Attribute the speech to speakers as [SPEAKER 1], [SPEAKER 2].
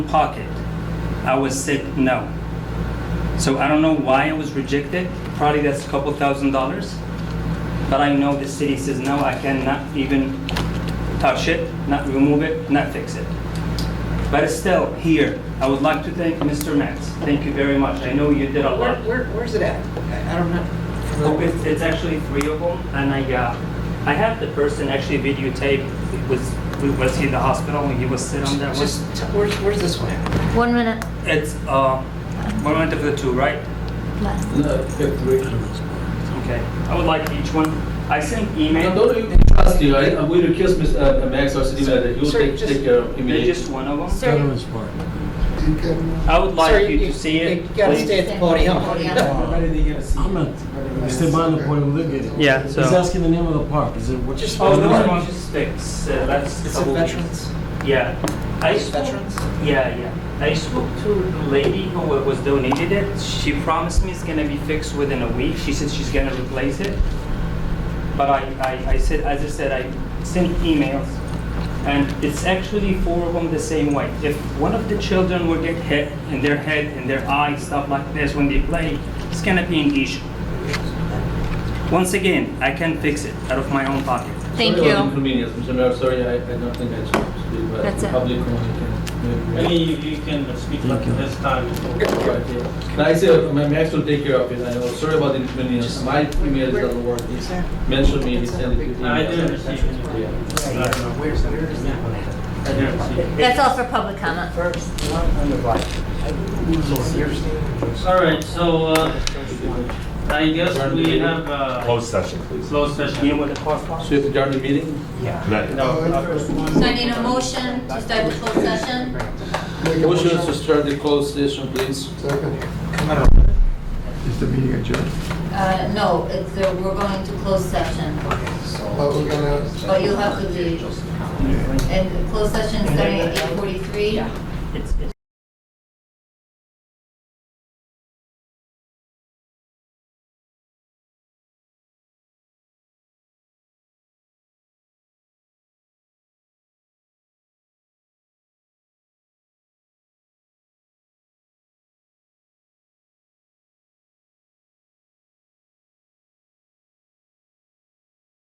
[SPEAKER 1] pocket. I was said no. So I don't know why I was rejected. Probably that's a couple thousand dollars. But I know the city says no, I cannot even touch it, not remove it, not fix it. But still, here, I would like to thank Mr. Max. Thank you very much. I know you did a
[SPEAKER 2] Where,
[SPEAKER 1] lot.
[SPEAKER 2] where, where's it at? I I don't know.
[SPEAKER 1] Oh, It's, it's actually three of them, and I, uh, I have the person actually videotape. It Was, was he in the hospital when he was sitting on that one?
[SPEAKER 2] Oh, Just, t- where's, where's this one at?
[SPEAKER 3] One minute
[SPEAKER 1] It's, uh, one minute for the two, right?
[SPEAKER 3] left.
[SPEAKER 4] No, fifth grade.
[SPEAKER 1] Okay. I would like each one, I sent
[SPEAKER 4] No,
[SPEAKER 1] email,
[SPEAKER 4] don't you trust you, I, we request Ms. uh, Max or city manager, you
[SPEAKER 2] Sir,
[SPEAKER 4] take,
[SPEAKER 2] just-
[SPEAKER 4] take care of
[SPEAKER 1] they're
[SPEAKER 4] immediately.
[SPEAKER 1] just one of them.
[SPEAKER 3] Sir,
[SPEAKER 1] I would
[SPEAKER 2] Sir,
[SPEAKER 1] like you to see it,
[SPEAKER 2] You gotta
[SPEAKER 1] please.
[SPEAKER 2] stay at the podium.
[SPEAKER 3] Yeah.
[SPEAKER 5] I'm not, Esteban, the point of look at it.
[SPEAKER 1] Yeah, so-
[SPEAKER 5] He's asking the name of the park, is it what?
[SPEAKER 2] Just
[SPEAKER 1] Oh,
[SPEAKER 2] no,
[SPEAKER 1] those
[SPEAKER 2] no.
[SPEAKER 1] ones just fix, uh, that's.
[SPEAKER 2] It's a
[SPEAKER 1] double-
[SPEAKER 2] veterans,
[SPEAKER 1] Yeah. I spoke-
[SPEAKER 2] veterans.
[SPEAKER 1] Yeah, yeah. I spoke to the lady who wa- was donated it. She promised me it's gonna be fixed within a week. She said she's gonna replace it. But I, I, I said, as I said, I sent emails, and it's actually four of them the same way. If one of the children will get hit in their head, in their eye, stuff like this when they play, it's gonna be an issue. Once again, I can fix it out of my own pocket.
[SPEAKER 3] thank
[SPEAKER 4] Sorry about
[SPEAKER 3] you.
[SPEAKER 4] inconvenience, Mr. Mayor, sorry, I, I don't think I should speak, but
[SPEAKER 3] That's
[SPEAKER 4] the
[SPEAKER 3] it.
[SPEAKER 4] public comment can.
[SPEAKER 6] Maybe you you can speak
[SPEAKER 5] Thank
[SPEAKER 6] at
[SPEAKER 5] you.
[SPEAKER 6] this time.
[SPEAKER 4] Right, yeah. No, I say, uh, Ma- Max will take care of it, I know, sorry about the inconvenience, my email doesn't work, he mentioned me, he sent it. to
[SPEAKER 6] I
[SPEAKER 4] email.
[SPEAKER 6] didn't receive any.
[SPEAKER 4] Yeah.
[SPEAKER 6] I don't know.
[SPEAKER 2] Where's, where is that one at?
[SPEAKER 6] I didn't receive.
[SPEAKER 3] That's all for public comment.
[SPEAKER 2] First, one on the right. What's yours?
[SPEAKER 6] All right, so uh, I guess we have a
[SPEAKER 7] Closed session, please.
[SPEAKER 6] closed
[SPEAKER 1] You
[SPEAKER 6] session.
[SPEAKER 1] know what the cost was?
[SPEAKER 4] So you have to adjourn the meeting?
[SPEAKER 2] Yeah.
[SPEAKER 7] No.
[SPEAKER 3] So I need a motion to start the closed session.
[SPEAKER 4] Motion to start the closed session, please.
[SPEAKER 8] Is the meeting adjourned?
[SPEAKER 3] Uh, no, it's, uh, we're going to closed session,
[SPEAKER 8] Oh, we're gonna.
[SPEAKER 3] but you'll have to leave. And the closed session starting at eight forty-three.
[SPEAKER 1] It's- it's-